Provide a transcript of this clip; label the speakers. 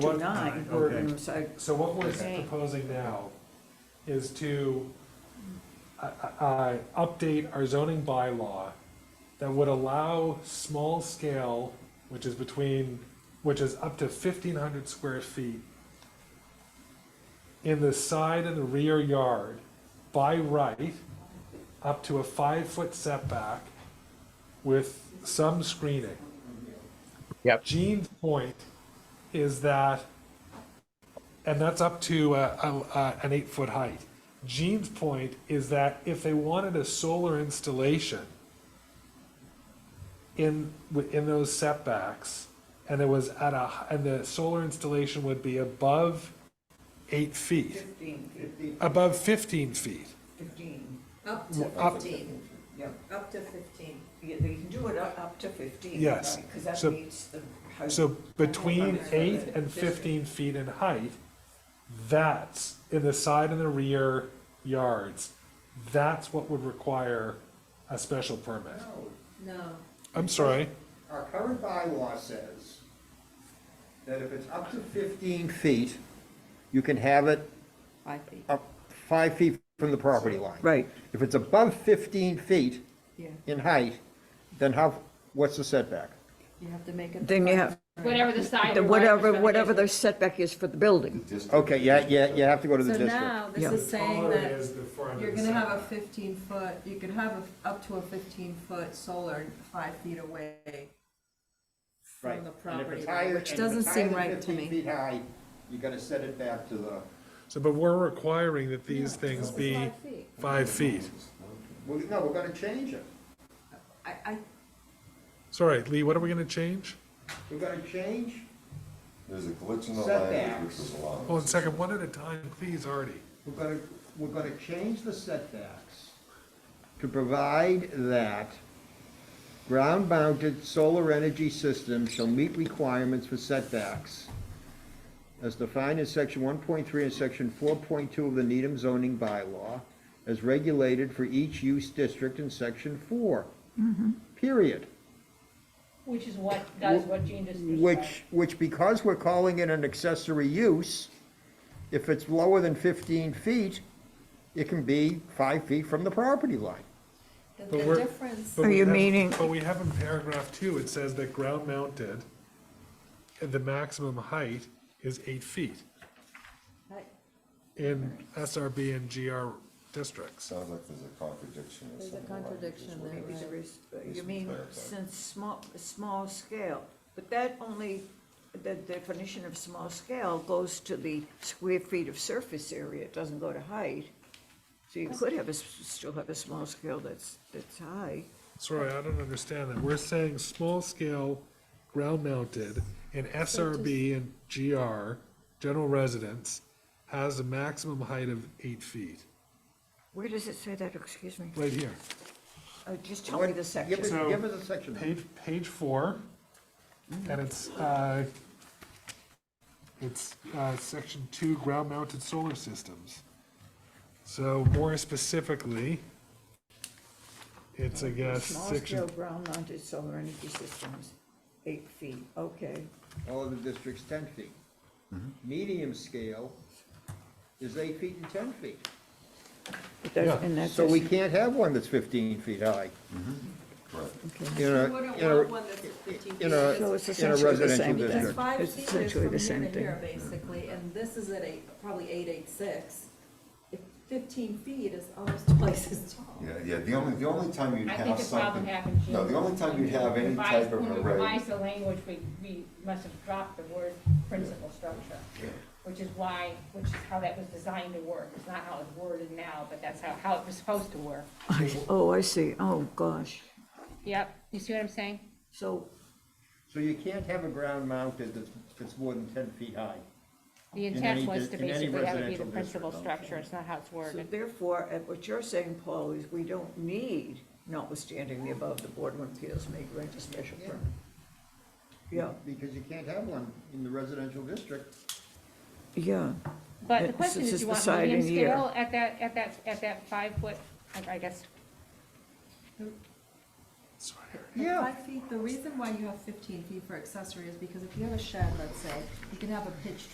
Speaker 1: What-
Speaker 2: nine, we're
Speaker 3: okay.
Speaker 2: gonna say,
Speaker 1: So what we're
Speaker 4: Okay.
Speaker 1: proposing now is to, uh, uh, update our zoning bylaw that would allow small scale, which is between, which is up to fifteen hundred square feet in the side and the rear yard by right, up to a five-foot setback with some screening.
Speaker 5: Yep.
Speaker 1: Gene's point is that, and that's up to uh, a, a, an eight-foot height. Gene's point is that if they wanted a solar installation in, within those setbacks, and it was at a, and the solar installation would be above eight feet,
Speaker 2: fifteen,
Speaker 1: above fifteen feet.
Speaker 2: fifteen,
Speaker 4: Up
Speaker 1: Well, up-
Speaker 4: to fifteen,
Speaker 2: yeah,
Speaker 4: up to fifteen.
Speaker 2: yeah, they can do it up, up to fifteen.
Speaker 1: Yes.
Speaker 2: Because that
Speaker 1: So-
Speaker 2: meets the. house-
Speaker 1: So between
Speaker 2: Okay.
Speaker 1: eight and fifteen feet in height, that's in the side and the rear yards, that's what would require a special permit.
Speaker 6: No,
Speaker 4: No,
Speaker 1: I'm sorry,
Speaker 6: our current bylaw says that if it's up to 15 feet, you can have it
Speaker 4: five feet.
Speaker 6: up five feet from the property line.
Speaker 2: Right.
Speaker 6: If it's above 15 feet
Speaker 4: Yeah,
Speaker 6: in height, then how, what's the setback?
Speaker 4: you have to make it.
Speaker 2: Then you have,
Speaker 7: Whatever the side.
Speaker 2: the
Speaker 7: yard
Speaker 2: whatever,
Speaker 7: setback
Speaker 2: whatever
Speaker 7: is.
Speaker 2: the setback is for the building,
Speaker 6: Okay, yeah, yeah, you have to go to the
Speaker 4: So
Speaker 6: district.
Speaker 4: now,
Speaker 2: Yeah.
Speaker 4: this is saying
Speaker 1: Taller
Speaker 4: that
Speaker 1: is the front
Speaker 4: you're
Speaker 1: and the
Speaker 4: gonna have a
Speaker 1: side.
Speaker 4: fifteen foot, you could have a- up to a fifteen foot solar five feet away
Speaker 6: Right.
Speaker 4: from the
Speaker 6: And if
Speaker 4: property
Speaker 6: it's
Speaker 4: line,
Speaker 6: higher-
Speaker 4: which
Speaker 6: and if it's
Speaker 4: doesn't
Speaker 6: higher
Speaker 4: seem
Speaker 6: than
Speaker 4: right to
Speaker 6: 15
Speaker 4: me.
Speaker 6: feet high, you gotta set it back to the,
Speaker 1: so, but we're requiring that these things
Speaker 4: It's
Speaker 1: be
Speaker 4: five feet.
Speaker 1: five feet.
Speaker 6: well, no, we're gonna change it.
Speaker 4: I, I,
Speaker 1: Sorry, Lee, what are we gonna change?
Speaker 6: We're gonna change,
Speaker 8: There's a glitch in the language which is
Speaker 1: Hold on
Speaker 8: allowed.
Speaker 1: a second, one at a time, please, Artie.
Speaker 6: we're gonna, we're gonna change the setbacks to provide that ground-mounted solar energy systems shall meet requirements for setbacks as defined in section one point three and section four point two of the Needham zoning bylaw, as regulated for each use district in section four. Period.
Speaker 7: Which is what, does what Gene just described.
Speaker 6: Which, which because we're calling it an accessory use, if it's lower than fifteen feet, it can be five feet from the property line.
Speaker 4: the
Speaker 1: But we're-
Speaker 4: the difference,
Speaker 1: But
Speaker 2: Are
Speaker 1: we
Speaker 2: you
Speaker 1: have-
Speaker 2: meaning-
Speaker 1: But we have in paragraph two, it says that ground mounted, the maximum height is eight feet
Speaker 4: I-
Speaker 1: in SRB and GR districts.
Speaker 8: Sounds like there's a contradiction or
Speaker 4: there's a
Speaker 8: something. like this.
Speaker 4: contradiction there,
Speaker 2: maybe
Speaker 4: right?
Speaker 2: there is, uh, you
Speaker 8: Just
Speaker 2: mean,
Speaker 8: clarify.
Speaker 2: since small, small scale, but that only, the definition of small scale goes to the square feet of surface area, it doesn't go to height. So you could have a, s- still have a small scale that's, that's high.
Speaker 1: Sorry, I don't understand that. We're saying small scale, ground mounted in SRB and GR, general residence, has a maximum height of eight feet,
Speaker 2: Where does it say that, excuse me?
Speaker 1: right here.
Speaker 2: Oh, just tell me the
Speaker 6: Give us,
Speaker 2: section.
Speaker 1: So-
Speaker 6: give us a section.
Speaker 1: Page, page four, and it's, uh, it's, uh, section two, ground mounted solar systems. So more specifically, it's, I guess,
Speaker 2: Small scale
Speaker 1: section,
Speaker 2: ground mounted solar energy systems, eight feet, okay.
Speaker 6: All of the districts ten feet. Medium scale is eight feet and ten feet.
Speaker 2: But that's-
Speaker 1: Yeah.
Speaker 2: And that's,
Speaker 6: So we
Speaker 2: okay,
Speaker 6: can't have one that's fifteen feet high.
Speaker 8: Right.
Speaker 6: You
Speaker 4: You
Speaker 6: know,
Speaker 4: wouldn't
Speaker 6: you know,
Speaker 4: want one that's fifteen feet.
Speaker 6: in a,
Speaker 2: So it's
Speaker 6: in a
Speaker 2: essentially the
Speaker 6: residential
Speaker 2: same thing.
Speaker 4: Because
Speaker 6: district.
Speaker 4: five
Speaker 2: It's
Speaker 4: feet is
Speaker 2: essentially
Speaker 4: from
Speaker 2: the
Speaker 4: here
Speaker 2: same
Speaker 4: to
Speaker 2: thing.
Speaker 4: here, basically, and this is at eight, probably eight, eight, six. If Fifteen feet is almost twice as tall.
Speaker 8: Yeah, yeah, the only, the only time you'd
Speaker 7: I think
Speaker 8: have
Speaker 7: the problem
Speaker 8: something,
Speaker 7: happened, Gene.
Speaker 8: no, the only time you'd have any
Speaker 7: Revise-
Speaker 8: type of
Speaker 7: when we
Speaker 8: array,
Speaker 7: revised the language, we, we must have dropped the word principal structure, which is why, which is how that was designed to work. It's not how it's worded now, but that's how, how it was supposed to work.
Speaker 2: oh, I see, oh, gosh.
Speaker 7: Yep, you see what I'm saying?
Speaker 2: So
Speaker 6: So you can't have a ground mounted that's, that's more than ten feet high.
Speaker 7: The
Speaker 6: In
Speaker 7: intent
Speaker 6: any dis-
Speaker 7: was to
Speaker 6: in any
Speaker 7: basically have it be
Speaker 6: residential
Speaker 7: the principal
Speaker 6: district, I'm
Speaker 7: structure, it's not how it's
Speaker 2: So
Speaker 7: worded.
Speaker 2: therefore, at what you're saying, Paul, is we don't need, notwithstanding the above, the Board of Appeals may grant a special permit. Yeah,
Speaker 6: Because you can't have one in the residential district.
Speaker 2: yeah,
Speaker 7: But the
Speaker 2: It's-
Speaker 7: question
Speaker 2: it's
Speaker 7: is,
Speaker 2: just
Speaker 7: do you want
Speaker 2: the side
Speaker 7: medium
Speaker 2: and year.
Speaker 7: scale at that, at that, at that five foot, I- I guess,
Speaker 1: Sorry, Eric.
Speaker 4: And
Speaker 6: Yeah.
Speaker 4: Five feet, the reason why you have fifteen feet for accessory is because if you have a shed, let's say, you can have a pitched